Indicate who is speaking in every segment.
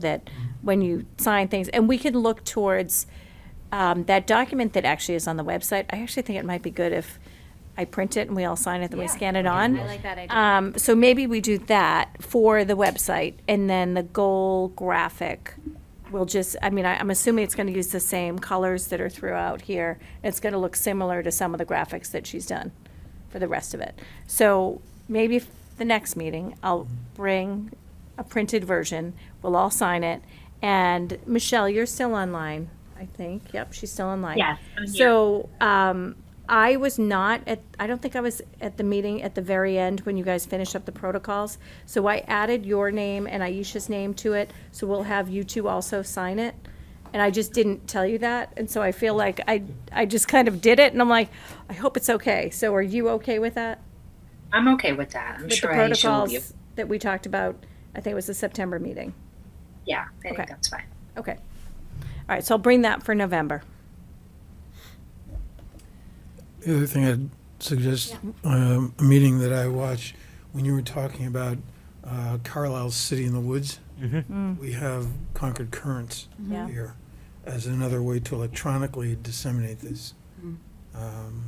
Speaker 1: that when you sign things, and we can look towards um, that document that actually is on the website. I actually think it might be good if I print it and we all sign it, then we
Speaker 2: Yeah.
Speaker 1: scan it on.
Speaker 2: I like that idea.
Speaker 1: Um, so maybe we do that for the website, and then the goal graphic will just, I mean, I, I'm assuming it's gonna use the same colors that are throughout here. It's gonna look similar to some of the graphics that she's done for the rest of it. So maybe f- the next meeting, I'll bring a printed version, we'll all sign it. And Michelle, you're still online, I think. Yep, she's still online.
Speaker 3: Yes, I'm here.
Speaker 1: So, um, I was not at, I don't think I was at the meeting at the very end when you guys finished up the protocols. So I added your name and Aisha's name to it, so we'll have you two also sign it. And I just didn't tell you that, and so I feel like I, I just kind of did it, and I'm like, I hope it's okay. So are you okay with that?
Speaker 3: I'm okay with that. I'm
Speaker 1: With the
Speaker 3: sure Aisha will be.
Speaker 1: protocols that we talked about, I think it was the September meeting.
Speaker 3: Yeah, I
Speaker 1: Okay.
Speaker 3: think that's fine.
Speaker 1: Okay. All right, so I'll bring that for November.
Speaker 4: The other thing I'd suggest, um, a meeting that I watched, when you were talking about uh, Carlisle's City in the Woods, we have Concord Currents
Speaker 1: Mm. Yeah.
Speaker 4: here as another way to electronically disseminate this. Um,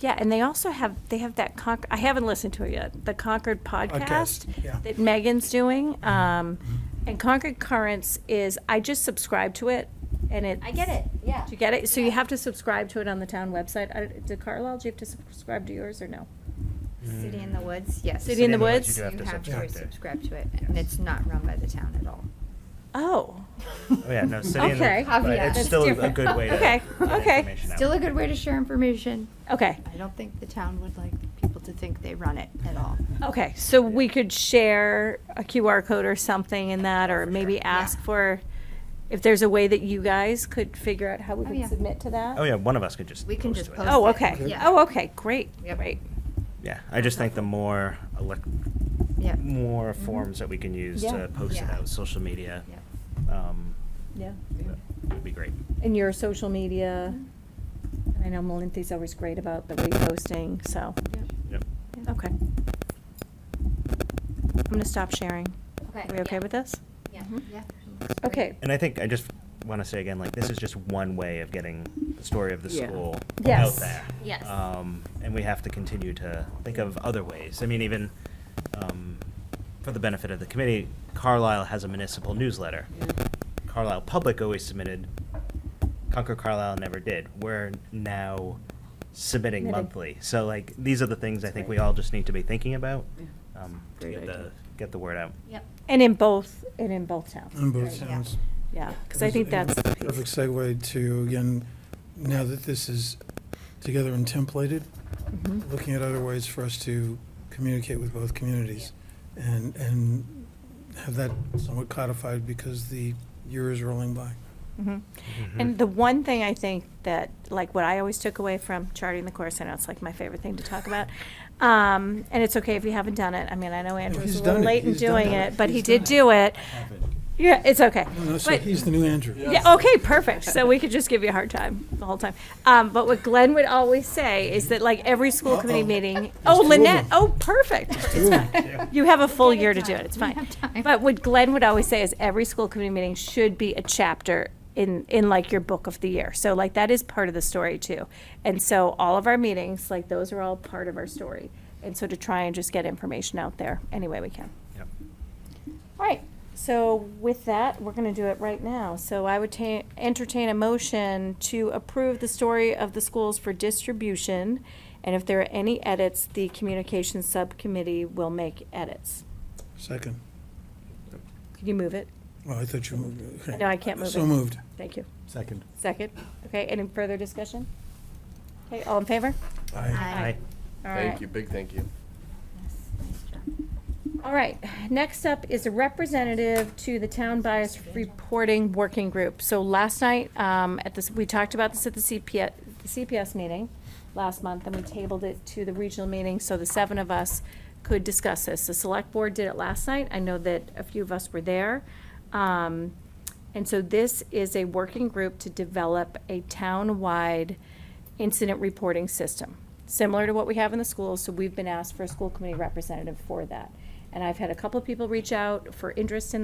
Speaker 1: Yeah, and they also have, they have that Con, I haven't listened to it yet, the Concord podcast
Speaker 4: Podcast, yeah.
Speaker 1: that Megan's doing. Um, and Concord Currents is, I just subscribed to it and it.
Speaker 2: I get it, yeah.
Speaker 1: Do you get it? So you have to subscribe to it on the town website. I- Did Carlisle, do you have to subscribe to yours or no?
Speaker 2: City in the
Speaker 5: Mm.
Speaker 2: Woods, yes.
Speaker 1: City in the Woods?
Speaker 5: You do have
Speaker 2: You
Speaker 5: to
Speaker 2: have
Speaker 5: subscribe
Speaker 2: to
Speaker 5: to it.
Speaker 2: subscribe to it, and it's not run by the town at all.
Speaker 1: Oh,
Speaker 5: Oh, yeah, no, City in the-
Speaker 1: Okay.
Speaker 5: but
Speaker 2: Caveat.
Speaker 5: It's
Speaker 2: That's
Speaker 5: still a- a
Speaker 2: different.
Speaker 5: good way to.
Speaker 1: Okay,
Speaker 5: get
Speaker 1: okay.
Speaker 5: information out.
Speaker 2: Still a good way to share information.
Speaker 1: okay,
Speaker 2: I don't think the town would like people to think they run it at all.
Speaker 1: okay. So we could share a QR code or something in that, or maybe ask for, if there's a way that you guys could figure out how we
Speaker 2: Oh,
Speaker 1: could
Speaker 2: yeah.
Speaker 1: submit to that?
Speaker 5: Oh, yeah, one of us could just.
Speaker 2: We can just
Speaker 5: to it.
Speaker 2: post
Speaker 1: Oh,
Speaker 2: it,
Speaker 1: okay.
Speaker 2: yeah.
Speaker 1: Oh, okay, great,
Speaker 2: Yep.
Speaker 1: great.
Speaker 5: Yeah, I just think the more, elec-
Speaker 2: Yeah.
Speaker 5: more forms that we can use
Speaker 1: Yeah.
Speaker 5: to post it
Speaker 2: Mm-hmm. Yeah.
Speaker 5: out, social media,
Speaker 2: Yeah.
Speaker 5: um,
Speaker 1: Yeah.
Speaker 5: would be great.
Speaker 1: And your social media, and I know Melinthy's always great about the reposting, so,
Speaker 5: Yep.
Speaker 1: okay. I'm gonna stop sharing. Are we okay with this?
Speaker 2: Yeah.
Speaker 1: Mm-hmm. Okay,
Speaker 5: And I think I just want to say again, like, this is just one way of getting the story of the
Speaker 6: Yeah.
Speaker 5: school out
Speaker 1: Yes.
Speaker 5: there.
Speaker 2: Yes.
Speaker 5: Um, and we have to continue to think of other ways. I mean, even um, for the benefit of the committee, Carlisle has a municipal newsletter. Carlisle Public always submitted. Concord Carlisle never did. We're now submitting
Speaker 1: Submitting.
Speaker 5: monthly. So like, these are the things I think we all just need to be thinking about um, to
Speaker 6: Great
Speaker 5: get
Speaker 6: idea.
Speaker 5: the, get the word out.
Speaker 2: Yep.
Speaker 1: and in both, and in both towns,
Speaker 4: On both
Speaker 2: Yeah.
Speaker 4: sounds.
Speaker 1: yeah, because I think that's the
Speaker 4: Perfect
Speaker 1: piece.
Speaker 4: segue to, again, now that this is together and templated,
Speaker 1: Mm-hmm.
Speaker 4: looking at other ways for us to communicate with both communities and, and have that somewhat codified because the year is rolling by.
Speaker 1: Mm-hmm. And the one thing I think that, like, what I always took away from charting the course, I know it's like my favorite thing to talk about. Um, and it's okay if you haven't done it. I mean, I know Andrew's
Speaker 4: he's
Speaker 1: a little
Speaker 4: done it.
Speaker 1: late in
Speaker 4: He's done
Speaker 1: doing
Speaker 4: it.
Speaker 1: it, but he
Speaker 4: He's
Speaker 1: did
Speaker 4: done it.
Speaker 1: do it. Yeah, it's okay.
Speaker 4: No, no, so
Speaker 1: But-
Speaker 4: he's the new Andrew.
Speaker 1: yeah, oh. okay, perfect. So we could just give you a hard time the whole time. Um, but what Glenn would always say is that like every school committee
Speaker 4: Uh-oh.
Speaker 1: meeting,
Speaker 4: two
Speaker 1: oh,
Speaker 4: of
Speaker 1: Lynette,
Speaker 4: them.
Speaker 1: oh, perfect. It's fine. You have a full
Speaker 2: get it
Speaker 1: year to do
Speaker 2: done.
Speaker 1: it, it's
Speaker 2: We
Speaker 1: fine.
Speaker 2: have time.
Speaker 1: But what Glenn would always say is every school committee meeting should be a chapter in, in like your book of the year. So like that is part of the story too. And so all of our meetings, like those are all part of our story. And so to try and just get information out there any way we can.
Speaker 5: Yep.
Speaker 1: All right, so with that, we're gonna do it right now. So I would ta- entertain a motion to approve the story of the schools for distribution. And if there are any edits, the communications subcommittee will make edits.
Speaker 4: Second.
Speaker 1: Could you move it?
Speaker 4: Well, I thought you moved. okay.
Speaker 1: No, I can't move it.
Speaker 4: So moved.
Speaker 1: Thank you.
Speaker 7: Second.
Speaker 1: Second, okay, any further discussion? Okay, all in favor?
Speaker 4: Aye.
Speaker 5: Aye.
Speaker 1: All right.
Speaker 7: Thank you, big thank you.
Speaker 1: All right, next up is a representative to the Town Bias Reporting Working Group. So last night, um, at this, we talked about this at the CPS, the CPS meeting last month, and we tabled it to the regional meeting, so the seven of us could discuss this. The Select Board did it last night, I know that a few of us were there. Um, and so this is a working group to develop a town-wide incident reporting system, similar to what we have in the schools, so we've been asked for a school committee representative for that. And I've had a couple of people reach out for interest in